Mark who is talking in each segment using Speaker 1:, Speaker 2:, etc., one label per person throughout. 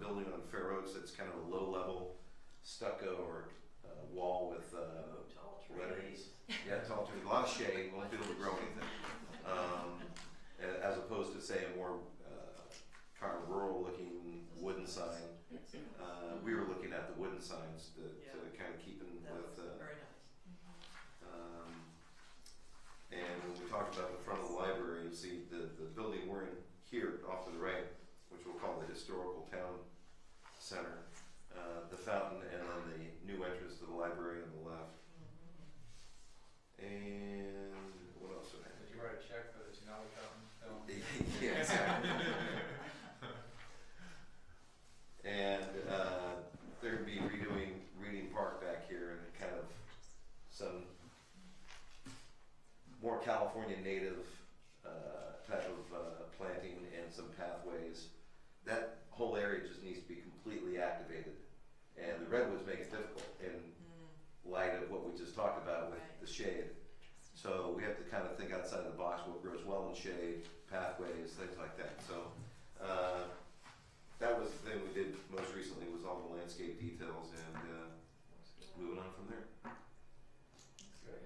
Speaker 1: building on Fair Oaks that's kind of a low level stucco or uh, wall with uh,
Speaker 2: Tall
Speaker 1: lettering.
Speaker 2: trees.
Speaker 1: yeah, tall trees, a lot of shade, won't be able to grow anything. Um, a- as opposed to say a more uh, kind of rural looking wooden sign. Uh, we were looking at the wooden signs to, to kind of keep in
Speaker 2: That
Speaker 1: with.
Speaker 2: was
Speaker 1: Uh,
Speaker 2: very nice.
Speaker 1: um, and when we talked about the front of the library, you see the, the building we're in here off to the right, which we'll call the historical town center, uh, the fountain, and then the new entrance to the library on the left. And what else did I have?
Speaker 3: Did you write a check for the Denali Fountain film?
Speaker 1: yeah, exactly. and uh, they're gonna be redoing Reading Park back here and kind of some more California native uh, type of uh, planting and some pathways. That whole area just needs to be completely activated, and the redwoods make it difficult in light of what we just talked about with
Speaker 2: Right.
Speaker 1: the shade. So we have to kind of think outside the box, what grows well in shade, pathways, things like that. So uh, that was the thing we did most recently was all the landscape details and uh, moving on from there.
Speaker 3: Good.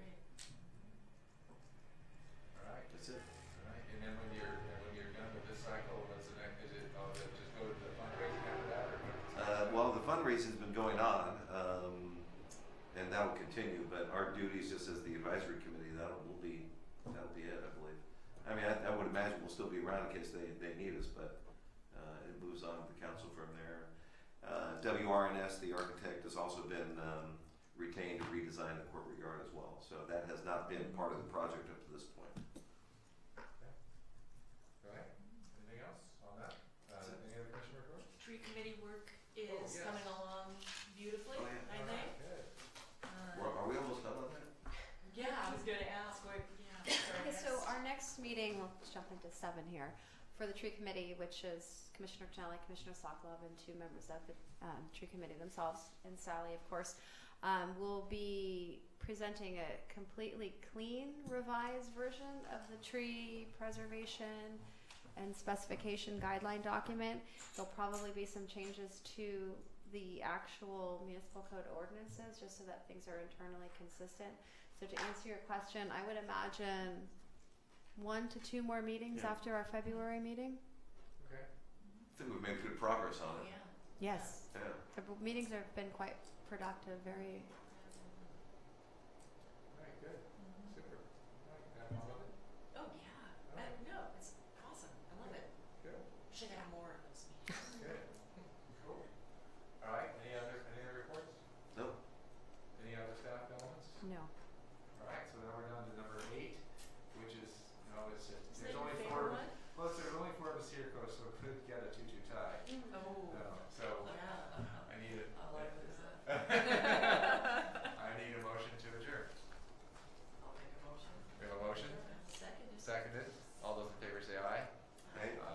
Speaker 3: Alright,
Speaker 1: That's it.
Speaker 3: alright, and then when you're, and when you're done with this cycle, what's the next, is it, oh, then just go to the fundraising after that, or? what?
Speaker 1: Uh, well, the fundraising's been going on, um, and that will continue. But our duties, just as the advisory committee, that will be that'll be it, I believe. I mean, I, I would imagine we'll still be around in case they, they need us, but uh, it moves on with the council from there. Uh, WRNS, the architect, has also been um, retained to redesign the corporate yard as well. So that has not been part of the project up to this point.
Speaker 3: Alright, anything else on that?
Speaker 1: That's
Speaker 3: Uh,
Speaker 1: it.
Speaker 3: any other question or comment?
Speaker 2: Tree committee work
Speaker 3: Oh,
Speaker 2: is
Speaker 3: yes.
Speaker 2: coming along beautifully,
Speaker 1: Oh, yeah.
Speaker 2: I think.
Speaker 3: Alright, good.
Speaker 2: Uh,
Speaker 1: Well, are we almost done on that?
Speaker 2: Yeah, I was gonna ask, what, yeah.
Speaker 4: Okay, so our next meeting, we'll just jump into seven here, for the tree committee, which is Commissioner Janelli, Commissioner Sokolov, and two members of the um, tree committee themselves, and Sally, of course, um, will be presenting a completely clean revised version of the tree preservation and specification guideline document. There'll probably be some changes to the actual municipal code ordinances, just so that things are internally consistent. So to answer your question, I would imagine one to two more meetings
Speaker 1: Yeah.
Speaker 4: after our February meeting.
Speaker 3: Okay,
Speaker 1: I think we've made good progress on it.
Speaker 2: Yeah.
Speaker 4: Yes.
Speaker 1: Yeah.
Speaker 4: The b- meetings have been quite productive, very,
Speaker 3: alright, good,
Speaker 2: Mhm.
Speaker 3: super. Alright, that one's on it?
Speaker 2: Oh, yeah, I, no, it's awesome, I love it,
Speaker 3: Good,
Speaker 2: should have more of those meetings.
Speaker 3: good, cool. Alright, any other, any other reports?
Speaker 1: No.
Speaker 3: Any other staff elements?
Speaker 4: no.
Speaker 3: Alright, so now we're down to number eight, which is, no, it's,
Speaker 2: Is that
Speaker 3: there's
Speaker 2: your
Speaker 3: only
Speaker 2: favorite
Speaker 3: four,
Speaker 2: one?
Speaker 3: plus there's only four of us here, Coach, so we could get a two-two tie.
Speaker 2: Oh,
Speaker 3: No, so
Speaker 2: yeah,
Speaker 3: I need a,
Speaker 2: I like this.
Speaker 3: I need a motion to adjourn.
Speaker 2: I'll make a motion.
Speaker 3: We have a motion,
Speaker 2: Second is.
Speaker 3: seconded, all those in favor say aye.
Speaker 1: Right?
Speaker 3: Aye.